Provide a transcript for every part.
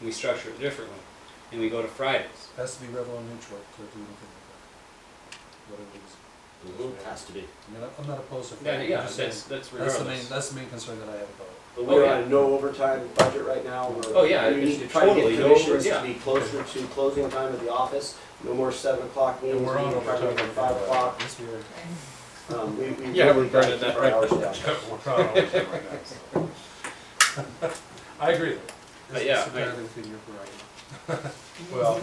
and we structure it differently, and we go to Fridays. Has to be Revlon neutral to do anything like that. Whatever it is. It has to be. I mean, I'm not opposed to. Yeah, I'm yeah, just that's, saying, that's That's the main, regardless. that's the main concern that I have about it. Oh, But we're yeah. on a no overtime budget right now. We're- Oh, yeah, We it's need to try to totally get no commissions over- to be closer to closing time of the office, no more seven o'clock meetings. And we're on no more overtime. at Five o'clock. This year. Um, we- we Yeah, really we're gotta burning keep that our right hours down. We're on overtime right now, so. I agree. But yeah, I- Well,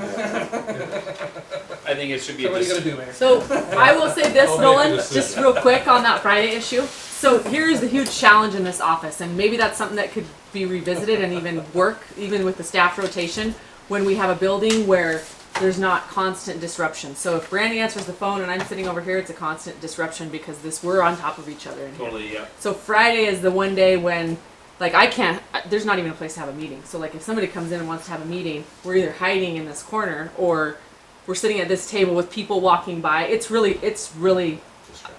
I think it should be so a what are you gonna dis- do, Mayor? So I will say this, I'll make a Nolan, decision. just real quick on that Friday issue. So here is the huge challenge in this office, and maybe that's something that could be revisited and even work, even with the staff rotation, when we have a building where there's not constant disruption. So if Brandy answers the phone and I'm sitting over here, it's a constant disruption because this we're on top of each other in here. totally, yeah. So Friday is the one day when, like, I can't. There's not even a place to have a meeting. So like, if somebody comes in and wants to have a meeting, we're either hiding in this corner or we're sitting at this table with people walking by. It's really, it's really.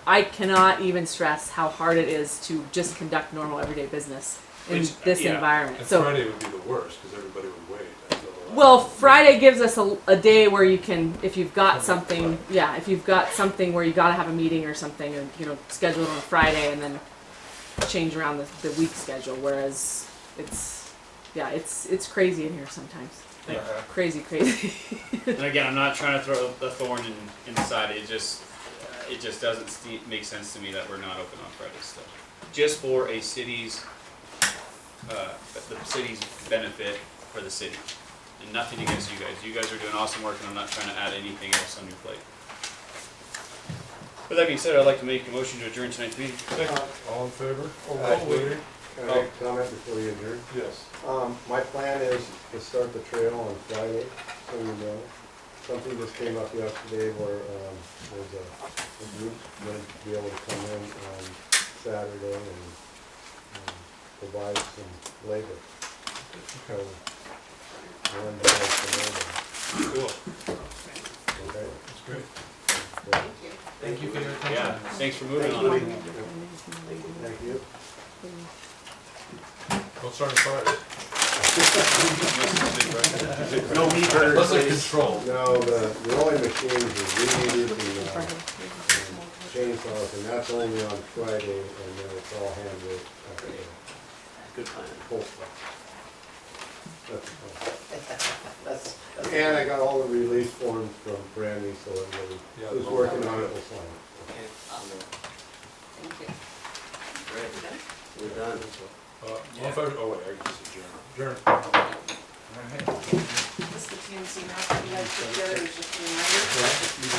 I cannot even stress how hard it is to just conduct normal everyday business in Which, this yeah. environment. And So. Friday would be the worst because everybody would wait. until the last Well, minute. Friday gives us a, a day where you can, if you've got something, yeah, if you've got something where you gotta have a meeting or something, and you know, schedule it on a Friday and then change around the, the week schedule. Whereas it's, yeah, it's it's crazy in here sometimes. Like, Uh-huh. Crazy, crazy. And again, I'm not trying to throw a thorn in, in the side. It just, uh, it just doesn't ste make sense to me that we're not open on Fridays still. Just for a city's, uh, the city's benefit for the city. And nothing against you guys. You guys are doing awesome work and I'm not trying to add anything else on your plate. With that being said, I'd like to make a motion to adjourn tonight's meeting. All in favor? Aye. Wait, Can I make a comment before you adjourn? Yes. Um, my plan is to start the trail on Friday, so you know. Something just came up yesterday where, um, there's a, a group going to be able to come in on Saturday and, um, provide some labor. So, one day for Cool. labor, okay? That's great. So, Thank you for your attention. Yeah, thanks for moving on. it. Thank you. Don't start on Friday. No meat burgers, Let's like please. control. No, the, the only machines are readers and, uh, chainsaws, and that's only on Friday, and then it's all handled uh, at the Good plan. pole spot. That's, uh, And I got all the release forms from Brandy, so everybody Yeah, who's the- working on it will sign it. we're done. Uh, all in favor? Oh, wait, I can just adjourn. Adjourn. This is the TNC map that you guys put together, it's just a reminder as to which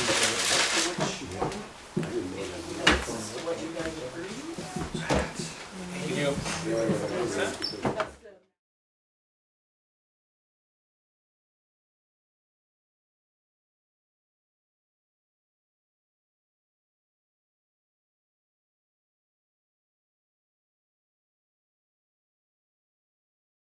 one, this is what you guys approved. Thank you. Yeah, I got it.